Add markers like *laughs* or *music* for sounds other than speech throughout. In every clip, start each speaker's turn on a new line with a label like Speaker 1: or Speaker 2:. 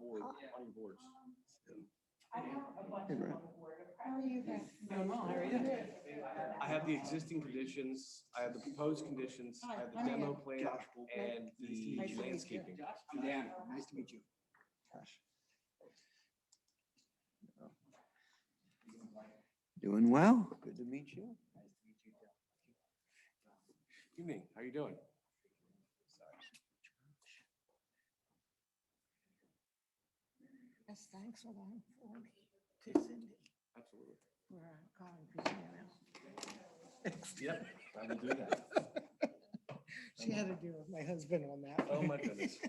Speaker 1: Planning boards.
Speaker 2: Hey, Brad.
Speaker 3: Doing well, how are you?
Speaker 1: I have the existing conditions, I have the proposed conditions, I have the
Speaker 3: Hi, how are
Speaker 1: demo plan and the
Speaker 3: Nice to meet you.
Speaker 1: landscaping.
Speaker 4: Dan, nice to meet you.
Speaker 2: Gosh. Doing well. Good to meet you.
Speaker 1: Evening, how you doing?
Speaker 3: Yes, thanks a lot for me, to Cindy,
Speaker 1: Absolutely.
Speaker 3: where I'm calling Christina.
Speaker 1: Yep. I will do that.
Speaker 3: *laughs* She had to deal with my husband on that.
Speaker 1: Oh,
Speaker 3: one.
Speaker 1: my goodness.
Speaker 3: *laughs*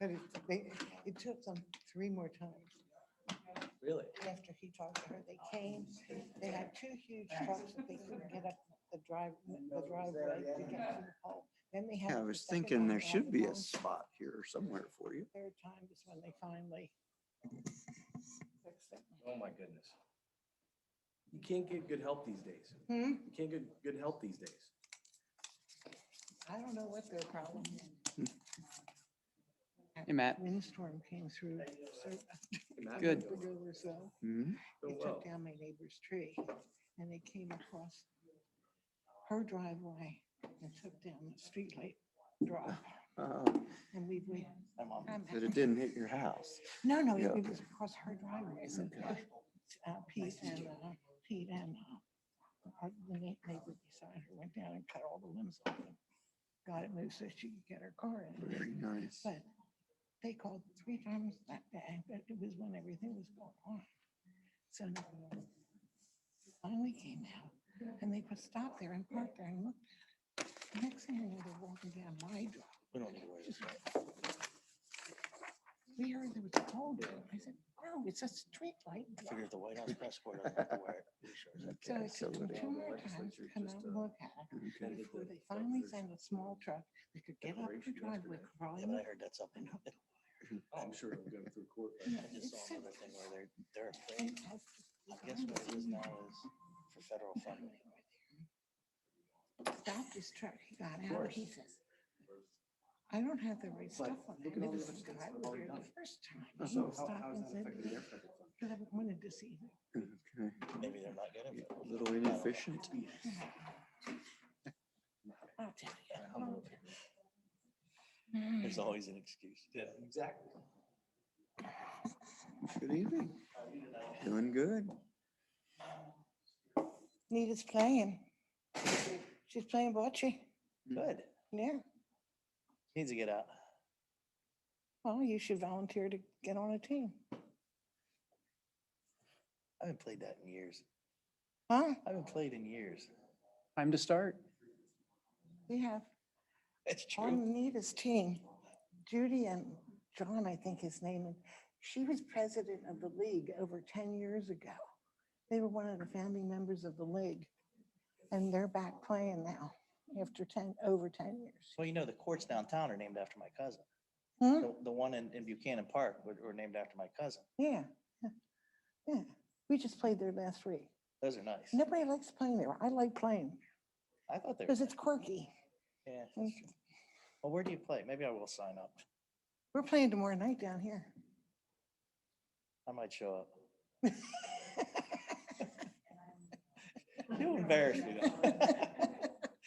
Speaker 3: But it, they, it took them three more times.
Speaker 1: Really?
Speaker 3: after he talked to her, they came, they had two huge trucks that they couldn't get up the drive, the driveway to get to the pole. Then they had.
Speaker 2: Yeah, I
Speaker 3: the
Speaker 2: was
Speaker 3: second
Speaker 2: thinking
Speaker 3: one
Speaker 2: there
Speaker 3: down
Speaker 2: should
Speaker 3: the
Speaker 2: be a
Speaker 3: pole.
Speaker 2: spot here somewhere for you.
Speaker 3: Third time is when they finally. fixed it.
Speaker 1: Oh, my goodness. You can't get good help these days.
Speaker 3: Hmm,
Speaker 1: You can't get good help these days.
Speaker 3: I don't know what their problem is.
Speaker 5: Hey, Matt.
Speaker 3: Windstorm came through, *laughs* so,
Speaker 1: Hey, Matt,
Speaker 5: Good.
Speaker 1: doing well.
Speaker 3: or so. They
Speaker 2: Mhm.
Speaker 1: Doing Oh, well.
Speaker 3: took down my neighbor's tree and they came across her driveway and took down the streetlight drive.
Speaker 2: Oh,
Speaker 3: And we waited. I'm-
Speaker 2: That it didn't hit your house.
Speaker 3: No, no,
Speaker 2: Yeah.
Speaker 3: it was across her driveway. So uh, Pete and, uh, Pete and uh, our- the neigh- neighbor beside her went down and cut all the limbs off and got it moved so she could get her car in.
Speaker 2: Very nice.
Speaker 3: But they called three times that day, but it was when everything was going on. So now, finally came out and they put stop there and parked there and looked. at it. The Next thing you know, they're walking down my driveway. We heard there was a pole there. I said, no, it's a street light.
Speaker 6: Figure if the White House press corps doesn't have to
Speaker 2: *laughs*
Speaker 6: wear it. pretty sure it's-
Speaker 3: So
Speaker 2: Okay,
Speaker 3: it
Speaker 2: so
Speaker 3: took them
Speaker 2: what-
Speaker 3: two more
Speaker 1: legislature
Speaker 3: times to come
Speaker 1: just,
Speaker 3: out
Speaker 1: uh,
Speaker 3: and look at it
Speaker 2: Okay.
Speaker 1: amended
Speaker 3: before
Speaker 1: the
Speaker 3: they finally
Speaker 1: version.
Speaker 3: sent a small truck that could get up the
Speaker 1: Declaration
Speaker 3: driveway
Speaker 1: yesterday.
Speaker 6: Yeah,
Speaker 3: crawling
Speaker 6: but I
Speaker 3: up.
Speaker 6: heard that's up in, I
Speaker 1: Oh, I'm sure it'll go through court. but-
Speaker 3: Yeah,
Speaker 6: just
Speaker 3: it's
Speaker 6: saw another
Speaker 3: so-
Speaker 6: thing where they're, they're afraid.
Speaker 3: and that's-
Speaker 6: I guess what it is now is for federal funding.
Speaker 3: Stopped his truck, he got out, he says, I don't have the right stuff on.
Speaker 1: look
Speaker 3: I
Speaker 1: at all the
Speaker 3: never
Speaker 1: other
Speaker 3: said
Speaker 1: states
Speaker 3: I
Speaker 1: that
Speaker 3: was
Speaker 1: have already
Speaker 3: there
Speaker 1: done
Speaker 3: the First time.
Speaker 1: Oh,
Speaker 3: He
Speaker 1: So how,
Speaker 3: stopped
Speaker 1: how's
Speaker 3: and
Speaker 1: that
Speaker 3: said,
Speaker 1: affecting their federal funds?
Speaker 3: Because I wanted to see. him."
Speaker 2: Okay.
Speaker 6: Maybe they're not getting it.
Speaker 2: A little inefficient.
Speaker 3: I'll tell you.
Speaker 6: I don't know. There's
Speaker 3: Mm.
Speaker 6: always an excuse.
Speaker 1: Yeah, exactly.
Speaker 2: Good evening. Doing good.
Speaker 3: Nita's playing. She's playing bocce,
Speaker 6: Good.
Speaker 3: yeah.
Speaker 6: Needs to get out.
Speaker 3: Well, you should volunteer to get on a team.
Speaker 6: I haven't played that in years.
Speaker 3: Huh?
Speaker 6: I haven't played in years.
Speaker 5: Time to start.
Speaker 3: We have
Speaker 6: That's true.
Speaker 3: on Nita's team, Judy and John, I think his name is, she was president of the league over 10 years ago. They were one of the founding members of the league. And they're back playing now after 10, over 10 years.
Speaker 6: Well, you know, the courts downtown are named after my cousin.
Speaker 3: Hmm?
Speaker 6: The, the one in, in Buchanan Park were, were named after my cousin.
Speaker 3: Yeah. yeah, Yeah. We just played there last week.
Speaker 6: Those are nice.
Speaker 3: Nobody likes playing there. I like playing
Speaker 6: I thought they were.
Speaker 3: because it's quirky.
Speaker 6: Yeah. that's
Speaker 3: Mm.
Speaker 6: true. Well, where do you play? Maybe I will sign up.
Speaker 3: We're playing tomorrow night down here.
Speaker 6: I might show up. You *laughs* embarrassed me though. *laughs*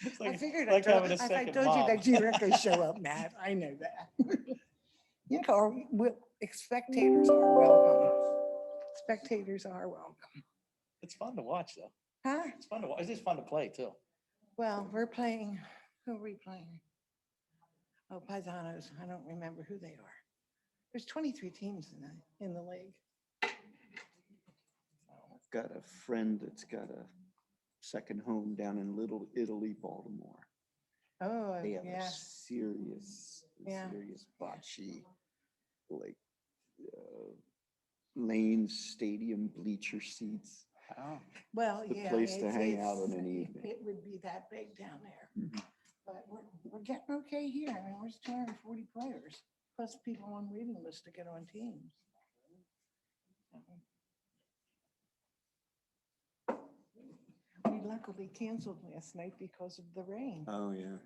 Speaker 6: It's
Speaker 3: *laughs* I
Speaker 6: like-
Speaker 3: figured I
Speaker 6: like
Speaker 3: told,
Speaker 6: having
Speaker 3: if
Speaker 6: a
Speaker 3: I
Speaker 6: second
Speaker 3: told you
Speaker 6: mom.
Speaker 3: that you were
Speaker 6: *laughs*
Speaker 3: gonna show up, Matt. I know that. *laughs* You know, or we- spectators are welcome. Spectators are welcome.
Speaker 6: It's fun to watch though.
Speaker 3: Huh?
Speaker 6: It's fun to watch. It's just fun to play too.
Speaker 3: Well, we're playing, who are we playing? Oh, Paisanos. I don't remember who they are. There's 23 teams in the, in the league.
Speaker 2: I've got a friend that's got a second home down in Little Italy, Baltimore.
Speaker 3: Oh,
Speaker 2: They have a
Speaker 3: yeah.
Speaker 2: serious,
Speaker 3: Yeah.
Speaker 2: serious bocce, like, uh, lane, stadium, bleacher seats.
Speaker 5: Oh,
Speaker 3: Well,
Speaker 2: the
Speaker 3: yeah.
Speaker 2: place to
Speaker 3: it's-
Speaker 2: hang out
Speaker 3: it's-
Speaker 2: in an evening.
Speaker 3: It would be that big down there.
Speaker 2: Mhm.
Speaker 3: But we're, we're getting okay here. I mean, there's two hundred and forty players, plus people on waiting list to get on teams. We luckily canceled last night because of the rain.
Speaker 2: Oh, yeah.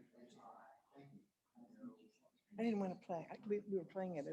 Speaker 3: I didn't want to play. I- We, we were playing at